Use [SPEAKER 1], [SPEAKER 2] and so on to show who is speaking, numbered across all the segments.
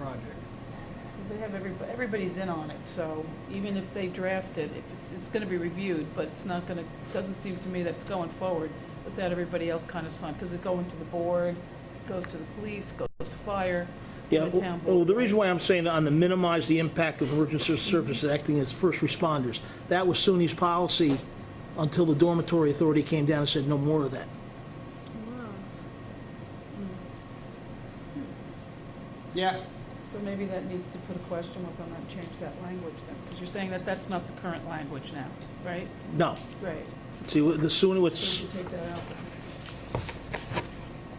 [SPEAKER 1] project.
[SPEAKER 2] 'Cause They have everybody, everybody's in on it, so even if they draft it, if it's, it's gonna be reviewed, but it's not gonna, doesn't seem to me that it's going forward without everybody else kinda signed, cause it going to the board, goes to the police, goes to fire,
[SPEAKER 3] Yeah,
[SPEAKER 2] to the town
[SPEAKER 3] well, the
[SPEAKER 2] board.
[SPEAKER 3] reason why I'm saying on the minimize the impact of emergency services acting as first responders, that was SUNY's policy until the dormitory authority came down and said no more of that.
[SPEAKER 1] Yeah.
[SPEAKER 2] So maybe that needs to put a question mark on that, and change that language then, cause you're saying that that's not the current language now, right?
[SPEAKER 3] No.
[SPEAKER 2] Right.
[SPEAKER 3] See, what- the SUNY,
[SPEAKER 2] So
[SPEAKER 3] what's,
[SPEAKER 2] we should take that out.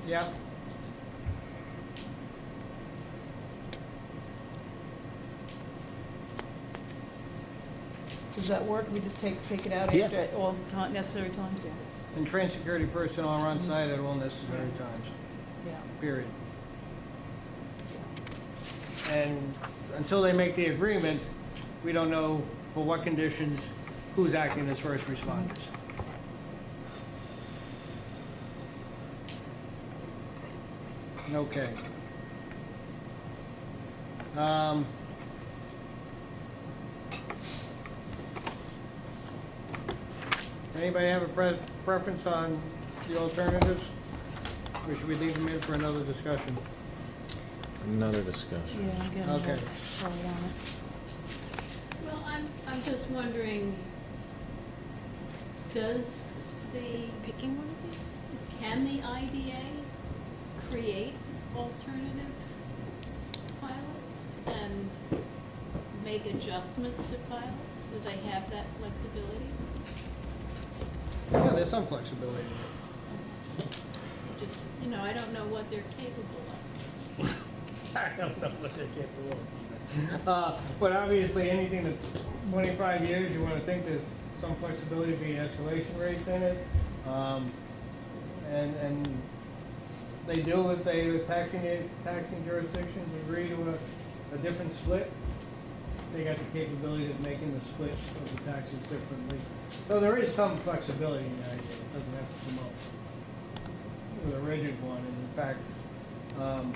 [SPEAKER 1] Yeah.
[SPEAKER 2] Does that work? We just take, take it out
[SPEAKER 3] Yeah.
[SPEAKER 2] after all ti- necessary times, yeah?
[SPEAKER 1] And trained security personnel are on site at all necessary times,
[SPEAKER 2] Yeah.
[SPEAKER 1] period. And until they make the agreement, we don't know for what conditions, who's acting as first responders. Okay. Um, Anybody have a pre- preference on the alternatives? Or should we leave them in for another discussion?
[SPEAKER 4] Another discussion.
[SPEAKER 2] Yeah, I'm getting
[SPEAKER 1] Okay.
[SPEAKER 2] that. So I want it.
[SPEAKER 5] Well, I'm, I'm just wondering, does the,
[SPEAKER 6] Picking one of these?
[SPEAKER 5] can the IDA create alternative pilots and make adjustments to pilots? Do they have that flexibility?
[SPEAKER 1] Yeah, there's some flexibility.
[SPEAKER 5] Just, you know, I don't know what they're capable of.
[SPEAKER 1] I don't know what they're capable of. Uh, But obviously, anything that's 25 years, you want to think there's some flexibility to be escalation rates in it. Um, And, and they do if they, if taxing, taxing jurisdictions agree to a, a different split. They got the capability of making the split of the taxes differently. So there is some flexibility in that, idea. it doesn't have to come up with a rigid one. And in fact, um,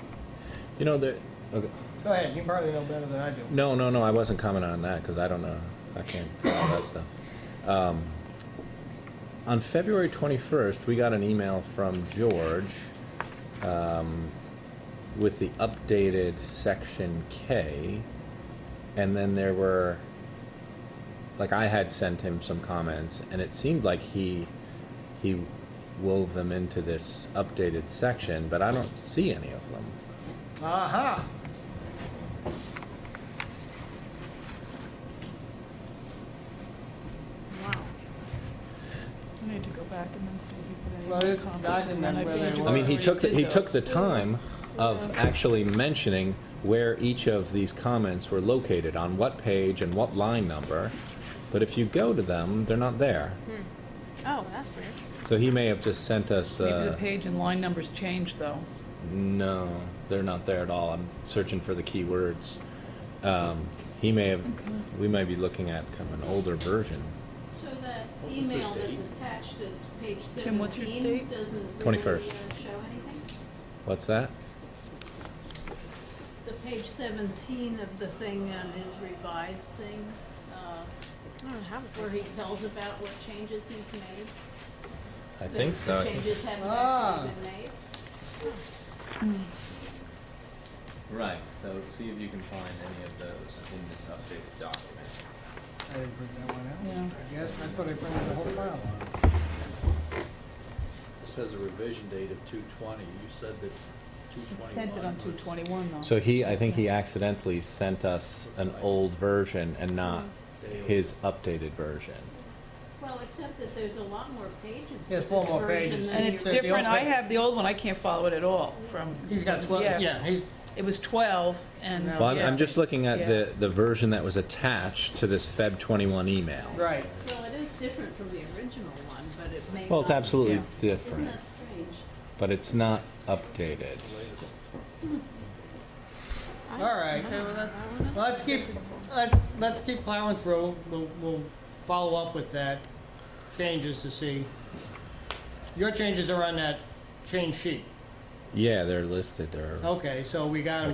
[SPEAKER 4] You know, there, okay.
[SPEAKER 1] Go ahead, you probably know better than I do.
[SPEAKER 4] no, no, no, I wasn't commenting on that because I don't know. I can't follow that stuff. Um, on February 21st, we got an email from George um, with the updated section K. And then there were, like, I had sent him some comments, and it seemed like he he wove them into this updated section, but I don't see any of them.
[SPEAKER 1] Aha!
[SPEAKER 6] Wow.
[SPEAKER 2] I need to go back and then see if
[SPEAKER 1] Well,
[SPEAKER 2] we put any
[SPEAKER 1] it-
[SPEAKER 2] comments.
[SPEAKER 1] I
[SPEAKER 2] and then
[SPEAKER 1] didn't
[SPEAKER 2] figured
[SPEAKER 1] really
[SPEAKER 2] you
[SPEAKER 4] I mean, he
[SPEAKER 2] already
[SPEAKER 4] took, the
[SPEAKER 2] did
[SPEAKER 4] he took the
[SPEAKER 2] those.
[SPEAKER 4] time of actually mentioning where each of these comments were located, on what page and what line number. But if you go to them, they're not there.
[SPEAKER 2] Hmm.
[SPEAKER 6] Oh, that's weird.
[SPEAKER 4] So he may have just sent us,
[SPEAKER 2] Maybe the
[SPEAKER 4] uh,
[SPEAKER 2] page and line numbers changed, though.
[SPEAKER 4] no, they're not there at all. I'm searching for the keywords. Um, He may have, we may be looking at kind of an older version.
[SPEAKER 5] So that email that's attached as page
[SPEAKER 2] Tim, what's your
[SPEAKER 5] seventeen
[SPEAKER 2] date?
[SPEAKER 5] doesn't really uh, show
[SPEAKER 4] 21st.
[SPEAKER 5] anything?
[SPEAKER 4] What's that?
[SPEAKER 5] The page seventeen of the thing on his revised thing, uh,
[SPEAKER 6] I don't have a
[SPEAKER 5] where he
[SPEAKER 6] person.
[SPEAKER 5] tells about what changes he's made.
[SPEAKER 4] I
[SPEAKER 5] the-
[SPEAKER 4] think so.
[SPEAKER 5] The changes haven't
[SPEAKER 1] Ah.
[SPEAKER 5] actually been made.
[SPEAKER 7] Right, so see if you can find any of those in this updated document.
[SPEAKER 1] I didn't print that one out. I
[SPEAKER 2] Yeah.
[SPEAKER 1] guess, I thought I printed the whole file
[SPEAKER 7] This has a revision date of two twenty, you said that two
[SPEAKER 2] It said that on 221, though.
[SPEAKER 4] So he, I think he accidentally sent us an old version and not his updated version.
[SPEAKER 5] Well, except that there's a lot more pages. to
[SPEAKER 1] There's four
[SPEAKER 5] this
[SPEAKER 1] more
[SPEAKER 5] version
[SPEAKER 1] pages.
[SPEAKER 5] than
[SPEAKER 2] And
[SPEAKER 5] your-
[SPEAKER 2] it's
[SPEAKER 1] So the old
[SPEAKER 2] different, I
[SPEAKER 1] pa-
[SPEAKER 2] have the old one, I can't follow it at all from,
[SPEAKER 1] He's got 12,
[SPEAKER 2] Yeah.
[SPEAKER 1] yeah, he's,
[SPEAKER 2] it was 12, and.
[SPEAKER 1] No.
[SPEAKER 4] Well, I'm, I'm
[SPEAKER 2] yeah.
[SPEAKER 4] just looking at the, the version that was attached to this Feb 21 email.
[SPEAKER 1] right.
[SPEAKER 5] Well, it is different from the original one, but it may not.
[SPEAKER 4] Well, it's absolutely
[SPEAKER 5] Isn't
[SPEAKER 4] different,
[SPEAKER 5] that strange?
[SPEAKER 4] but it's not updated.
[SPEAKER 6] I-
[SPEAKER 1] All right.
[SPEAKER 6] I
[SPEAKER 1] Okay,
[SPEAKER 6] don't
[SPEAKER 1] well,
[SPEAKER 6] know.
[SPEAKER 1] that's-
[SPEAKER 6] I don't know.
[SPEAKER 1] Let's keep, let's, let's keep plowing through, we'll, we'll follow up with that, changes to see. Your changes are on that change sheet,
[SPEAKER 4] Yeah, they're listed, they're.
[SPEAKER 1] okay, so we got 'em